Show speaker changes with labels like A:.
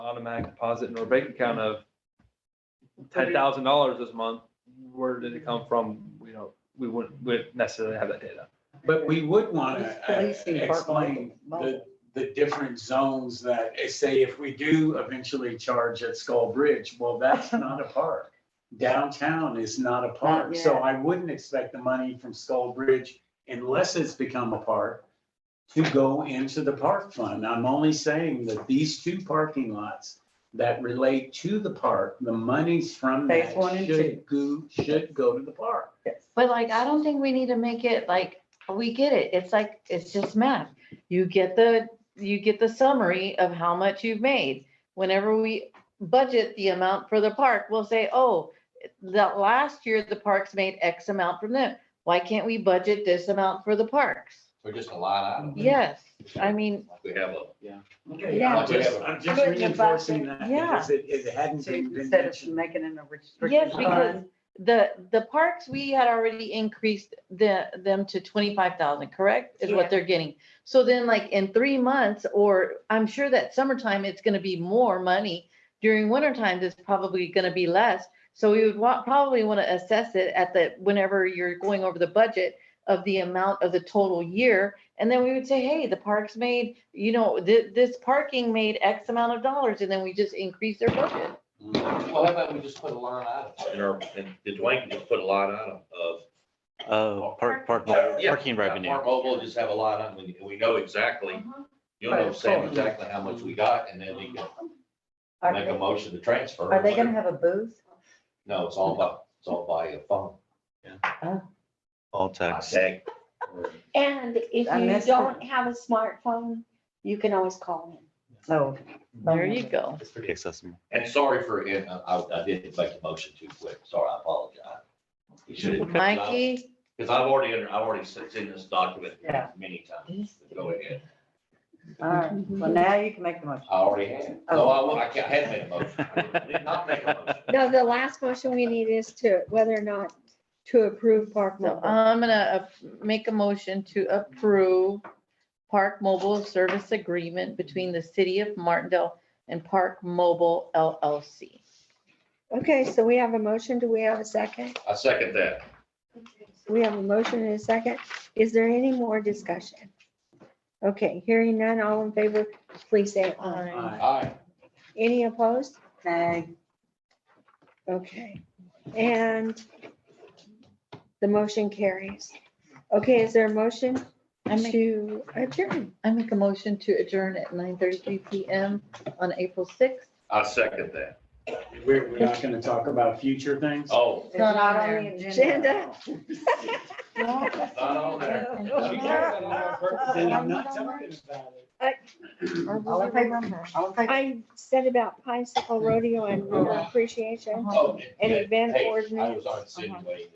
A: automatic deposit in our bank account of ten thousand dollars this month, where did it come from? We don't, we wouldn't, we wouldn't necessarily have that data.
B: But we would want
C: It's
B: to
C: policing part
B: explain the,
C: mobile.
B: the different zones that, eh, say, if we do eventually charge at Skull Bridge, well, that's not a park. Downtown is not a park, so
C: yet.
B: I wouldn't expect the money from Skull Bridge, unless it's become a park, to go into the park fund. I'm only saying that these two parking lots that relate to the park, the monies from
C: Phase
B: that
C: one and
B: should go, should go to the park.
D: But like, I don't think we need to make it like, we get it. It's like, it's just math. You get the, you get the summary of how much you've made. Whenever we budget the amount for the park, we'll say, oh, that last year the parks made X amount from them. Why can't we budget this amount for the parks?
E: So just a line item.
D: Yes, I mean,
E: We have a,
B: Okay,
C: Yeah.
B: I'm just, I'm just
C: Put it in a box
B: reinforcing that
D: Yeah.
B: because it, it hadn't
C: to,
B: been been
C: instead of
B: mentioned.
C: making it a restriction.
D: Yes, because the, the parks, we had already increased the, them to twenty-five thousand, correct? Is
C: Yeah.
D: what they're getting. So then like in three months, or I'm sure that summertime, it's gonna be more money. During wintertime, it's probably gonna be less. So we would want, probably wanna assess it at the, whenever you're going over the budget of the amount of the total year. And then we would say, hey, the parks made, you know, thi- this parking made X amount of dollars, and then we just increase their budget.
E: well, how about we just put a line item?
F: in our, in, did Dwayne just put a line item of?
G: Uh, park, park, parking revenue.
F: Park mobile, just have a line item, and we know exactly, you'll
C: Right,
F: know,
C: of
F: Sam,
C: course.
F: exactly how much we got, and then we can
C: Are
F: make a
C: they-
F: motion to transfer. or
C: are they gonna
F: whatever.
C: have a booth?
F: No, it's all by, it's all by a phone.
G: All
F: I
G: tax.
F: tag.
H: And if
C: I
H: you
C: missed
H: don't have a smartphone, you can always call in.
C: So.
D: There you go.
G: Accessible.
F: And sorry for, and I, I didn't make the motion too quick, sorry, I apologize. You shouldn't-
D: Mikey?
F: Because I've already, under- I've already seen this document
C: Yeah.
F: many times, go ahead.
C: All right,
H: Mm-hmm.
C: well, now you can make the motion.
F: I already had.
H: Oh.
F: No, I, wa- I can't- I had made a motion. I did not make a motion.
H: No, the last motion we need is to, whether or not to approve Park
D: So um,
H: Mobile.
D: I'm gonna uh, make a motion to approve Park Mobile Service Agreement between the City of Martindale and Park Mobile LLC.
H: Okay, so we have a motion. Do we have a second?
F: I second that.
H: We have a motion and a second. Is there any more discussion? Okay, hearing none, all in favor, please say aye.
B: Aye.
F: Aye.
H: Any opposed?
C: Okay.
H: Okay, and the motion carries. Okay, is there a motion
D: I make,
H: to adjourn?
D: I make a motion to adjourn at nine thirty-three PM on April sixth.
F: I second that.
B: We're, we're not gonna talk about future things.
F: Oh,
D: It's not on the
H: Agenda?
F: not on there.
B: Then I'm not talking about it.
C: All in favor? All in favor?
H: I said about bicycle rodeo and rodeo appreciation
F: Oh,
H: and
F: yeah.
H: event
F: Hey, I
H: ordinance. Uh-huh.
F: was on insinuating.